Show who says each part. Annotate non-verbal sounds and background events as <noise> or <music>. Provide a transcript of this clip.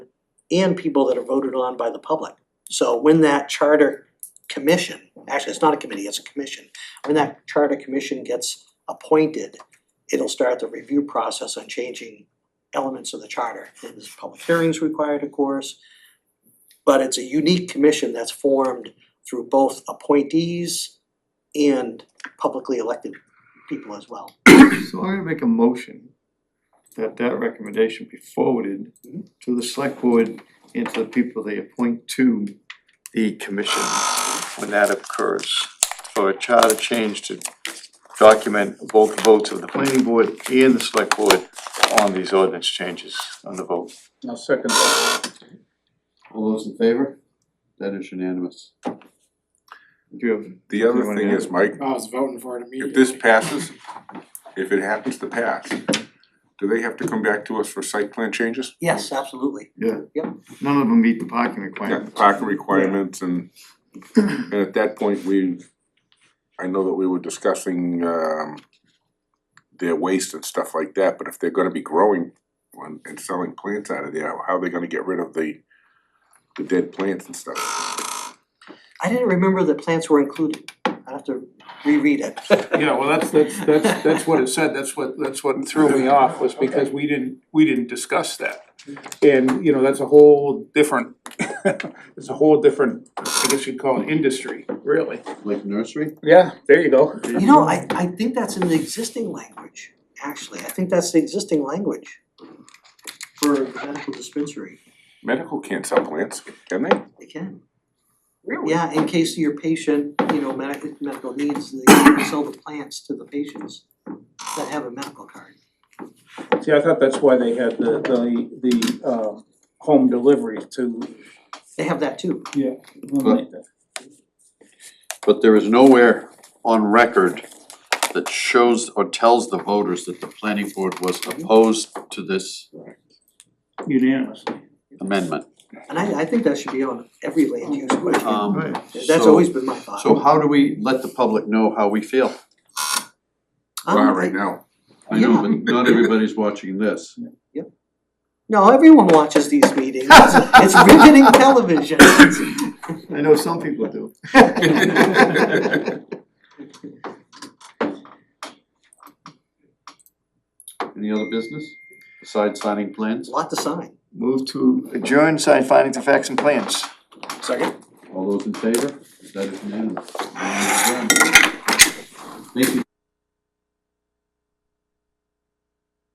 Speaker 1: and people that are voted on by the public. So when that charter commission, actually, it's not a committee, it's a commission, when that charter commission gets appointed, it'll start the review process on changing elements of the charter. And there's public hearings required, of course. But it's a unique commission that's formed through both appointees and publicly elected people as well.
Speaker 2: So I'm gonna make a motion that that recommendation be forwarded to the select board and to the people they appoint to the commission when that occurs. For a charter change to document both votes of the planning board and the select board on these ordinance changes on the vote.
Speaker 3: I'll second that.
Speaker 4: All those in favor? That is unanimous.
Speaker 2: Do you have,
Speaker 5: The other
Speaker 2: Anyone
Speaker 5: thing
Speaker 2: else?
Speaker 5: is, Mike,
Speaker 3: Oh, I was voting for it immediately.
Speaker 5: if this passes, if it happens to pass, do they have to come back to us for site plan changes?
Speaker 1: Yes, absolutely.
Speaker 2: none of them meet the parking
Speaker 5: Yeah,
Speaker 2: requirements.
Speaker 5: Parking requirements and, and at that point, we, I know that we were discussing, um, their waste and stuff like that, but if they're gonna be growing and, and selling plants out of there, how are they gonna get rid of the, the dead plants and stuff?
Speaker 1: I didn't remember that plants were included. I have to reread it.
Speaker 3: Yeah, well, that's, that's, that's, that's what it said, that's what, that's what threw me off, was because we didn't, we didn't discuss that. And, you know, that's a whole different, <laughs> it's a whole different, I guess you'd call it industry, really.
Speaker 4: Like nursery?
Speaker 3: Yeah, there you go.
Speaker 1: You know, I I think that's in the existing language, actually. I think that's the existing language for the medical dispensary.
Speaker 5: Medical can't sell plants, can they?
Speaker 1: They can.
Speaker 3: Really?
Speaker 1: Yeah, in case your patient, you know, medical medical needs, they can sell the plants to the patients that have a medical card.
Speaker 3: See, I thought that's why they had the, the, the, um, home delivery to
Speaker 1: They have that too.
Speaker 3: eliminate that.
Speaker 4: But there is nowhere on record that shows or tells the voters that the planning board was opposed to this
Speaker 3: Unanimously.
Speaker 4: amendment.
Speaker 1: And I I think that should be on every land use question.
Speaker 4: Um,
Speaker 1: That's
Speaker 4: so-
Speaker 1: always been my thought.
Speaker 4: So how do we let the public know how we feel?
Speaker 1: Um,
Speaker 5: Wow, right now, <laughs>
Speaker 4: I know, but not everybody's watching this.
Speaker 1: No, everyone watches these meetings. It's riveting
Speaker 4: <laughs>
Speaker 1: television.
Speaker 2: I know some people do.
Speaker 4: Any other business besides signing plans?
Speaker 1: Lot to sign.
Speaker 2: Move to adjourn, sign findings of facts and plans.
Speaker 4: All those in favor? That is unanimous. Thank you.